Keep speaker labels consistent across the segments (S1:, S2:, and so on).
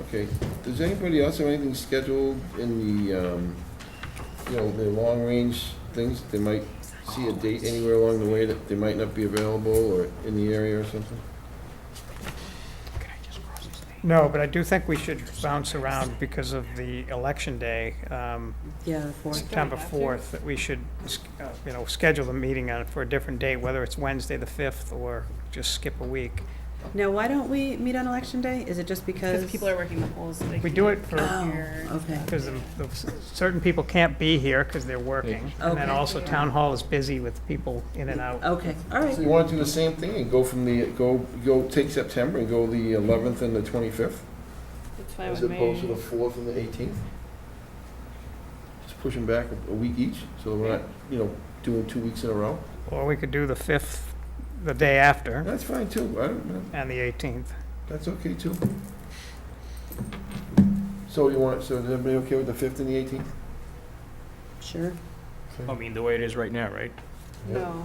S1: Okay, does anybody else have anything scheduled in the, um, you know, the long-range things? They might see a date anywhere along the way that they might not be available or in the area or something?
S2: No, but I do think we should bounce around because of the election day, um,
S3: Yeah, the fourth.
S2: September 4th, that we should, uh, you know, schedule a meeting on, for a different date, whether it's Wednesday the 5th or just skip a week.
S3: Now, why don't we meet on election day? Is it just because?
S4: Because people are working the polls. so they
S2: We
S4: can't
S2: do it for-
S4: come
S3: Oh,
S4: here.
S3: okay.
S2: Because certain people can't be here because they're working. And then
S3: Okay.
S2: also Town Hall is busy with people in and out.
S3: Okay, all right.
S1: So you want to do the same thing and go from the, go, go take September and go the eleventh and the twenty-fifth?
S4: That's fine
S1: As
S4: with me.
S1: opposed to the fourth and the eighteenth? Just push them back a- a week each, so we're not, you know, doing two weeks in a row?
S2: Or we could do the 5th, the day after,
S1: That's fine too, I don't, know.
S2: and the 18th.
S1: That's okay too. So you want, so is everybody okay with the fifth and the eighteenth?
S3: Sure.
S5: I mean, the way it is right now, right?
S4: No.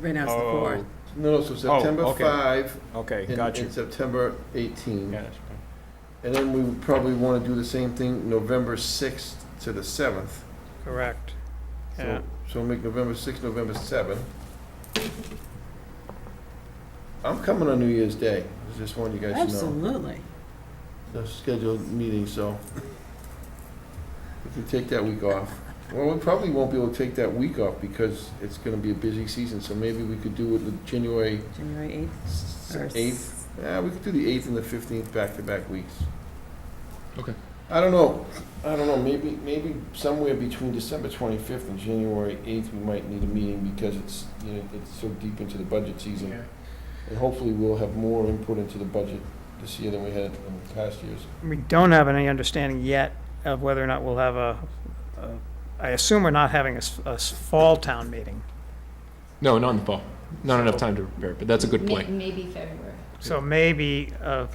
S3: Right now it's the
S5: Oh,
S3: fourth.
S1: No, no, so September
S5: okay.
S1: five
S5: Okay,
S1: and
S5: got you.
S1: and September eighteen.
S5: Yeah, that's fine.
S1: And then we would probably want to do the same thing, November sixth to the seventh.
S2: Correct. Yeah.
S1: So, so we'll make November sixth, November seventh. I'm coming on New Year's Day, I just want you guys to know.
S3: Absolutely.
S1: The scheduled meeting, so we can take that week off. Well, we probably won't be able to take that week off because it's gonna be a busy season, so maybe we could do it the January
S3: January eighth.
S1: s-
S3: or
S1: eighth.
S3: s-
S1: Yeah, we could do the eighth and the fifteenth back-to-back weeks.
S5: Okay.
S1: I don't know, I don't know, maybe, maybe somewhere between December twenty-fifth and January eighth, we might need a meeting because it's, you know, it's so deep into the budget season. And hopefully we'll have more input into the budget this year than we had in past years.
S2: We don't have any understanding yet of whether or not we'll have a, a- I assume we're not having a, s- a s- fall town meeting.
S6: No, not in the fall. Not enough time to prepare, but that's a good
S7: May-
S6: point.
S7: Maybe February.
S2: So maybe, uh,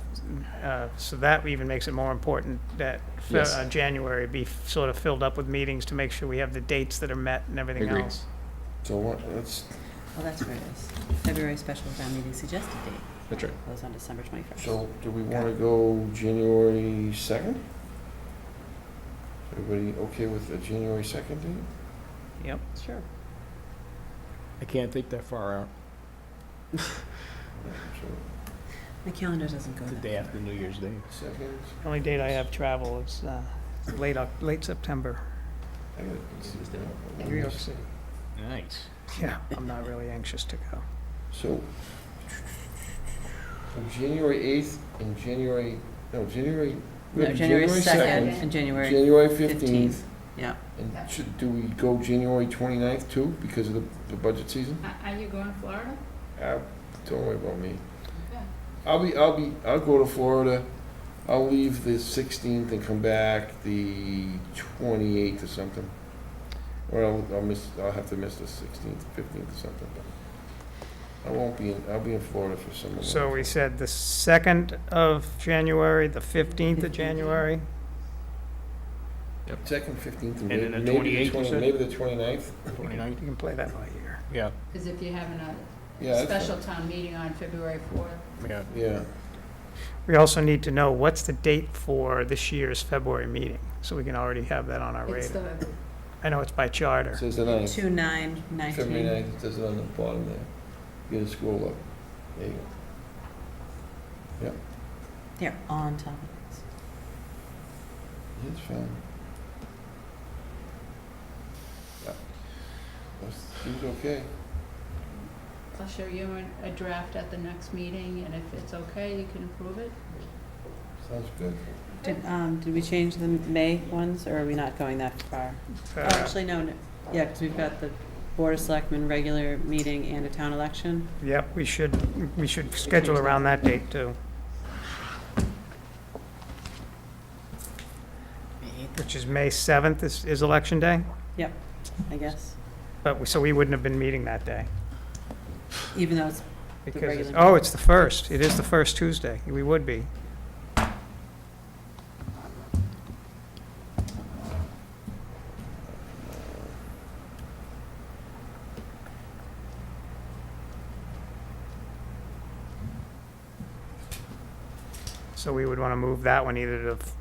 S2: uh, so that even makes it more important that Fe-
S6: Yes.
S2: uh, January be sort of filled up with meetings to make sure we have the dates that are met and everything
S6: Agreed.
S2: else.
S1: So what, let's,
S3: Oh, that's where it is. February special town meeting suggested date
S6: That's right.
S3: goes on December twenty-first.
S1: so do we wanna go January second? Everybody okay with a January second date?
S2: Yep.
S3: Sure.
S5: I can't think that far out,
S1: So,
S3: My calendar doesn't go
S5: the
S3: that.
S5: day after New Year's Day.
S1: Second,
S2: Only date I have travel is uh, late, Oc- late September,
S1: I gotta see this down.
S2: New York City.
S5: Nice.
S2: Yeah, I'm not really anxious to go.
S1: So, from January 8th and January, no, January. we
S3: No,
S1: have
S3: January second
S1: 2nd,
S3: and January,
S1: January
S3: 15th.
S1: 15th.
S3: yeah.
S1: And should, do we go January 29th too, because of the, the budget season?
S7: Are- Are Uh, you going to Florida?
S1: Uh, Don't worry about me.
S7: Yeah.
S1: I'll be, I'll be, I'll go to Florida. I'll leave the 16th and come back the 28th or something. Or I'll, I'll miss, I'll have to miss the 16th, 15th or something. but I won't be, in. I'll be in Florida for some of
S2: So
S1: that.
S2: we said the 2nd of January, the 15th of January,
S1: Second, fifteenth, and
S5: And then
S1: maybe,
S5: the 28th,
S1: maybe the
S5: you
S1: twenty,
S5: said?
S1: maybe the twenty-ninth?
S2: you can play that by ear.
S5: Yeah,
S7: Because if you're having
S1: Yeah,
S7: a
S1: that's
S7: special town meeting on February 4th,
S5: yeah.
S1: fine. yeah.
S2: We also need to know what's the date for this year's February meeting, so we can already have that on our
S7: it's
S2: radar.
S7: the,
S2: I know it's by
S1: It
S2: charter.
S1: says the ninth,
S3: Two nine nineteen.
S1: February ninth, it says it on the bottom there. You gotta scroll up. There you go.
S3: They're on top of this.
S1: It's fine. Yeah. That's- Seems okay.
S7: I'll show you an- a draft at the next meeting, and if it's okay, you can approve it.
S1: Sounds good.
S3: Did, um, did we change the May ones, or are we not going that far? Oh,
S2: Uh,
S3: Actually, no, no. yeah, because we've got the Board of Selectmen regular meeting and a town election.
S2: Yep, we should, we should schedule around that date, too, which is May 7th is, is Election Day,
S3: Yep, I guess,
S2: but, we- so we wouldn't have been meeting that day.
S3: even though it's,
S2: because
S3: regular
S2: it's-
S3: meeting.
S2: Oh, it's the first, it is the first Tuesday, we would be. So we would want to move that one either to the